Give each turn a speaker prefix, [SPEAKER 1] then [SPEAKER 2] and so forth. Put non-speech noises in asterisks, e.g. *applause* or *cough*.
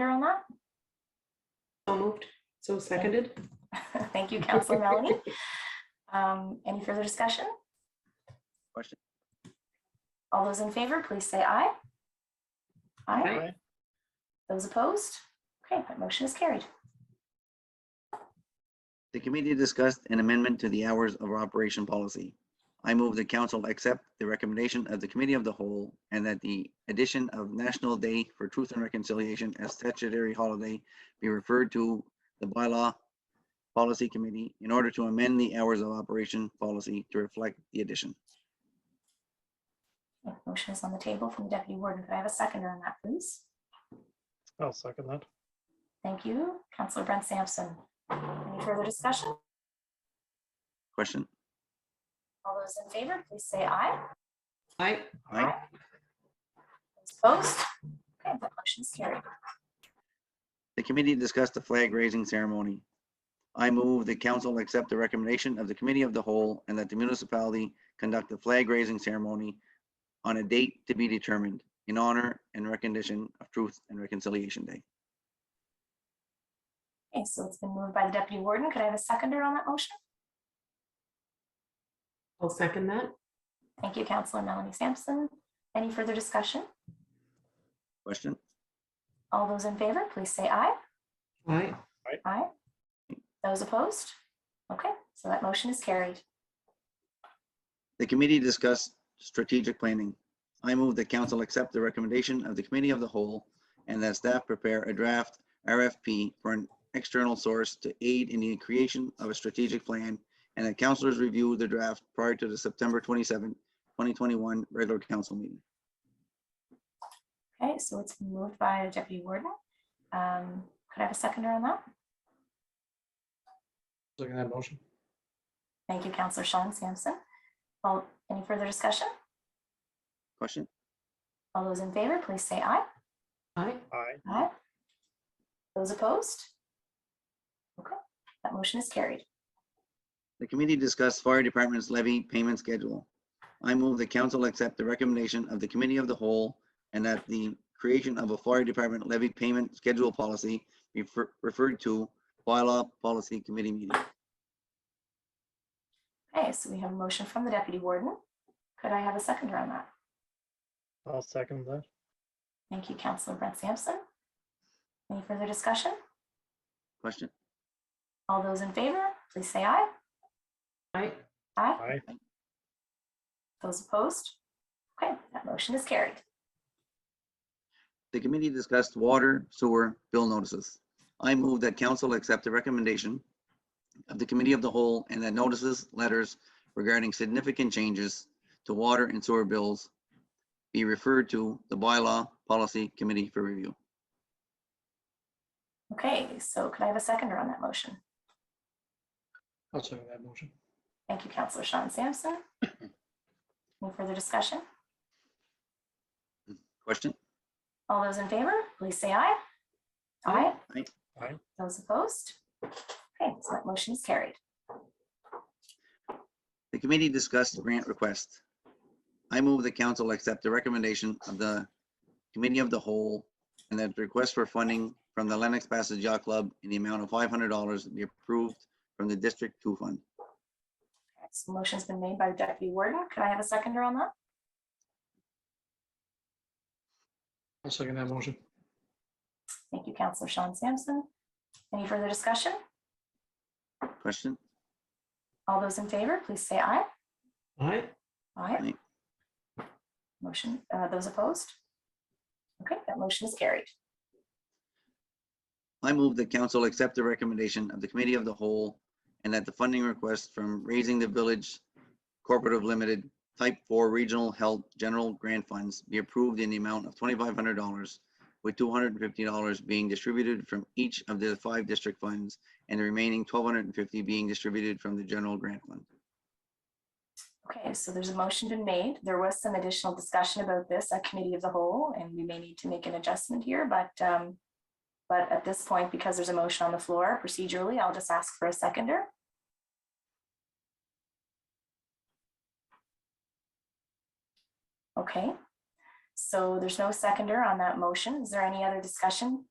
[SPEAKER 1] Under on that? *laughs*
[SPEAKER 2] So moved, so seconded.
[SPEAKER 1] Thank you, Counselor Melanie. Um, Any further discussion?
[SPEAKER 3] Question.
[SPEAKER 1] All those in favor, please say aye. Aye.
[SPEAKER 2] Aye.
[SPEAKER 1] Those opposed? Okay, that motion is carried.
[SPEAKER 3] The committee discussed an amendment to the hours of operation policy. I move the council accept the recommendation of the committee of the whole and that the addition of National Day for Truth and Reconciliation as statutory holiday be referred to the bylaw policy committee in order to amend the hours of operation policy to reflect the addition.
[SPEAKER 1] Yeah, Motion is on the table from the deputy warden. Could I have a second on that, please?
[SPEAKER 4] I'll second that.
[SPEAKER 1] Thank you, Counselor Brent Sampson. Any further discussion?
[SPEAKER 3] Question.
[SPEAKER 1] All those in favor, please say aye.
[SPEAKER 2] Aye.
[SPEAKER 3] Aye.
[SPEAKER 1] Those Opposed? Okay, that motion is carried.
[SPEAKER 3] The committee discussed the flag raising ceremony. I move the council accept the recommendation of the committee of the whole and that the municipality conduct the flag raising ceremony on a date to be determined in honor and recognition of Truth and Reconciliation Day.
[SPEAKER 1] Okay, so it's been moved by the deputy warden. Could I have a seconder on that motion?
[SPEAKER 2] I'll second that.
[SPEAKER 1] Thank you, Counselor Melanie Sampson. Any further discussion?
[SPEAKER 3] Question?
[SPEAKER 1] All those in favor, please say aye.
[SPEAKER 2] Aye.
[SPEAKER 1] Aye. Those opposed? Okay, so that motion is carried.
[SPEAKER 3] The committee discussed strategic planning. I move the council accept the recommendation of the committee of the whole and that staff prepare a draft RFP for an external source to aid in the creation of a strategic plan and that councilors review the draft prior to the September 27, 2021 regular council meeting.
[SPEAKER 1] Okay, so it's been moved by the deputy warden. Um, Could I have a seconder on that?
[SPEAKER 4] Second that motion.
[SPEAKER 1] Thank you, Counselor Sean Sampson. All, any further discussion?
[SPEAKER 3] Question?
[SPEAKER 1] All those in favor, please say aye.
[SPEAKER 2] Aye.
[SPEAKER 4] Aye.
[SPEAKER 1] Aye. Those opposed? Okay, that motion is carried.
[SPEAKER 3] The committee discussed fire department's levy payment schedule. I move the council accept the recommendation of the committee of the whole and that the creation of a fire department levy payment schedule policy be fer- referred to bylaw policy committee meeting.
[SPEAKER 1] Okay, so we have a motion from the deputy warden. Could I have a seconder on that?
[SPEAKER 4] I'll second that.
[SPEAKER 1] Thank you, Counselor Brent Sampson. Any further discussion?
[SPEAKER 3] Question?
[SPEAKER 1] All those in favor, please say aye.
[SPEAKER 2] Aye.
[SPEAKER 1] Aye.
[SPEAKER 4] Aye.
[SPEAKER 1] Those opposed? Okay, that motion is carried.
[SPEAKER 3] The committee discussed water, sewer, bill notices. I move that council accept the recommendation of the committee of the whole and that notices, letters regarding significant changes to water and sewer bills be referred to the bylaw policy committee for review.
[SPEAKER 1] Okay, so could I have a seconder on that motion?
[SPEAKER 4] I'll second that motion.
[SPEAKER 1] Thank you, Counselor Sean Sampson. Any further discussion?
[SPEAKER 3] Question?
[SPEAKER 1] All those in favor, please say aye. Aye.
[SPEAKER 3] Aye.
[SPEAKER 4] Aye.
[SPEAKER 1] Those opposed? Okay, so that motion is carried.
[SPEAKER 3] The committee discussed grant requests. I move the council accept the recommendation of the committee of the whole and that the request for funding from the Lennox Passage Yacht Club in the amount of five hundred dollars be approved from the District Two Fund.
[SPEAKER 1] So motion's been made by the deputy warden. Could I have a seconder on that?
[SPEAKER 4] I'll second that motion.
[SPEAKER 1] Thank you, Counselor Sean Sampson. Any further discussion?
[SPEAKER 3] Question?
[SPEAKER 1] All those in favor, please say aye.
[SPEAKER 2] Aye.
[SPEAKER 1] Aye. Motion, uh, those opposed? Okay, that motion is carried.
[SPEAKER 3] I move the council accept the recommendation of the committee of the whole and that the funding request from Raising the Village Corporative Limited Type Four Regional Health General Grant Funds be approved in the amount of twenty-five hundred dollars, with two hundred and fifty dollars being distributed from each of the five district funds and the remaining twelve hundred and fifty dollars being distributed from the general grant fund.
[SPEAKER 1] Okay, so there's a motion been made. There was some additional discussion about this at committee of the whole, and we may need to make an adjustment here, but, um, but at this point, because there's a motion on the floor procedurally, I'll just ask for a seconder. Okay, so there's no seconder on that motion. Is there any other discussion